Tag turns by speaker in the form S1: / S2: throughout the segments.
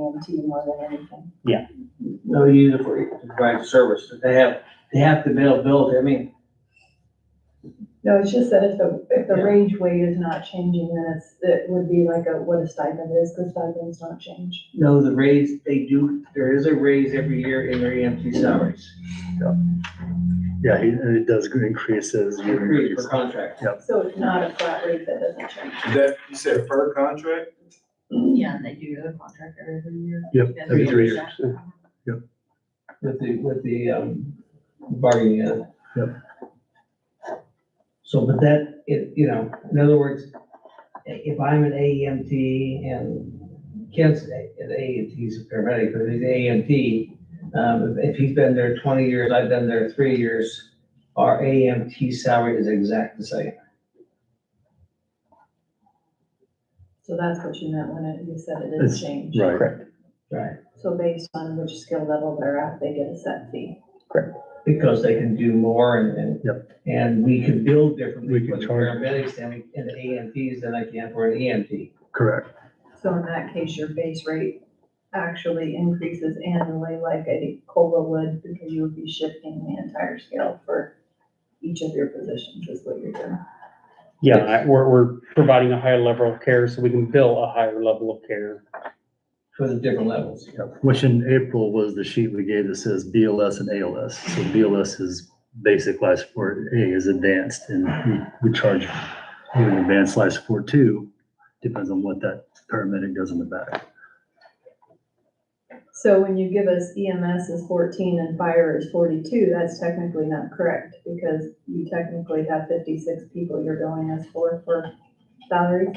S1: them to you more than anything.
S2: No, you either for- to provide service, but they have, they have the availability, I mean,
S1: No, it's just that if the, if the
S2: Yeah.
S1: range weight is not changing, then it's, it would be like a, what a stipend is, because stipends don't change.
S2: you know, the raise, they do, there is a raise every year in their EMT salaries.
S3: Yeah, he- and it does increase as you
S2: Agreed,
S3: increase.
S2: for contract.
S1: So it's not a flat rate that doesn't change.
S4: That, you said per contract?
S5: Yeah, and they do the contract every year.
S3: Yep,
S5: Yeah,
S3: every three years.
S5: percent.
S2: with the, with the, um, bargaining unit.
S3: Yep.
S2: So, but that, it, you know, in other words, i- if I'm an AEMT and Kent's a- an AEMT's a paramedic, but he's an AEMT, um, if he's been there twenty years, I've been there three years, our AEMT salary is exact the same.
S1: So that's what you meant when it- you said it
S3: It's-
S1: didn't change.
S3: Right.
S2: Right.
S1: So based on which skill level they're at, they get a set fee.
S2: Because they can do more and, and. And we can build differently
S3: We
S2: for
S3: can
S2: the
S3: charge.
S2: paramedics and we- and the AEMTs than I can for an E EMT.
S3: Correct.
S1: So in that case, your base rate actually increases annually like a COLA would, because you would be shifting the entire scale for each of your positions is what you're doing.
S6: Yeah, I- we're, we're providing a higher level of care so we can bill a higher level of care.
S2: for the different levels.
S3: Which in April was the sheet we gave that says BLS and ALS. So BLS is basic life support, A is advanced, and we, we charge you an advanced life support too, depends on what that paramedic does in the back.
S1: So when you give us EMS is fourteen and fire is forty-two, that's technically not correct, because you technically have fifty-six people you're billing us for, for salary.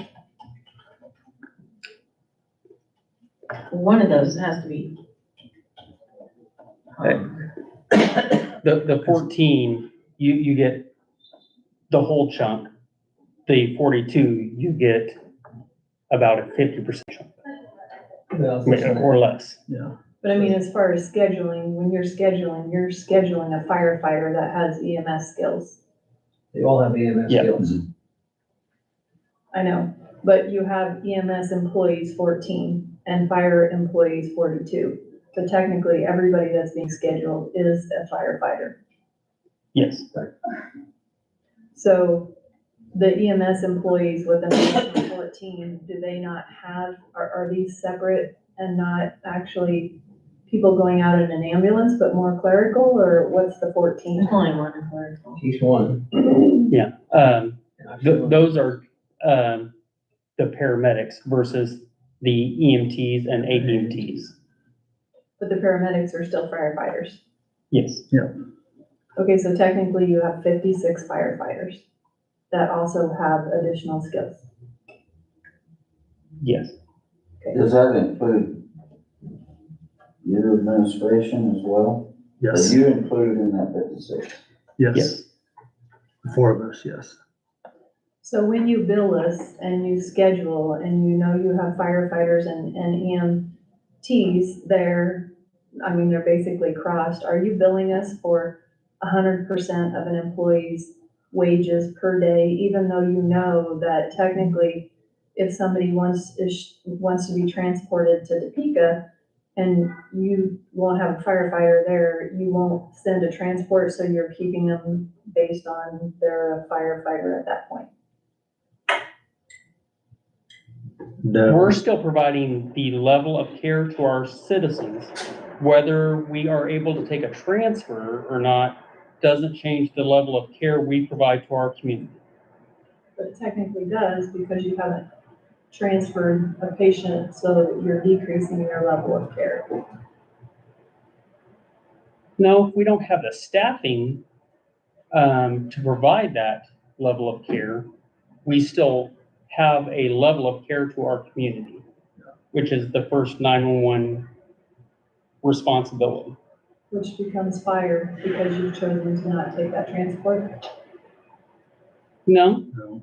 S5: One of those has to be. um,
S6: The, the fourteen, you, you get the whole chunk. The forty-two, you get about a fifty percent chunk,
S2: Well,
S6: I mean, or less.
S3: Yeah.
S1: But I mean, as far as scheduling, when you're scheduling, you're scheduling a firefighter that has EMS skills.
S2: They all have EMS
S6: Yeah.
S2: skills.
S1: I know, but you have EMS employees fourteen and fire employees forty-two. So technically, everybody that's being scheduled is a firefighter.
S6: Yes,
S1: So the EMS employees with an additional fourteen, do they not have, are, are these separate and not actually people going out in an ambulance, but more clerical, or what's the fourteen?
S5: There's only one in Clarksville.
S2: Each one.
S6: um, th- those are, um, the paramedics versus the EMTs and AEMTs.
S1: But the paramedics are still firefighters.
S6: Yes,
S1: Okay, so technically you have fifty-six firefighters that also have additional skills.
S6: yes.
S7: Does that include your administration as well?
S3: Yes,
S7: Are you included in that fifty-six?
S3: yes, four of us, yes.
S1: So when you bill us and you schedule and you know you have firefighters and, and EMTs there, I mean, they're basically crossed, are you billing us for hundred percent of an employee's wages per day, even though you know that technically if somebody wants, is, wants to be transported to Topeka and you won't have a firefighter there, you won't send a transport, so you're keeping them based on they're a firefighter at that point?
S3: No.
S6: We're still providing the level of care to our citizens. Whether we are able to take a transfer or not doesn't change the level of care we provide to our community.
S1: But it technically does because you haven't transferred a patient so that you're decreasing their level of care.
S6: No, if we don't have the staffing um, to provide that level of care, we still have a level of care to our community, which is the first 911 responsibility.
S1: Which becomes fire because you've chosen to not take that transport.
S6: No,
S3: No.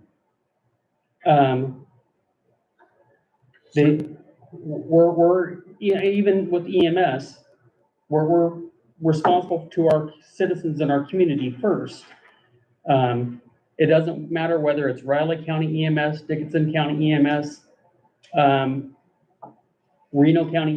S6: um, they, we're, we're, you know, even with EMS, we're, we're responsible to our citizens and our community first. Um, it doesn't matter whether it's Riley E County EMS, Dickinson County EMS, um, Reno County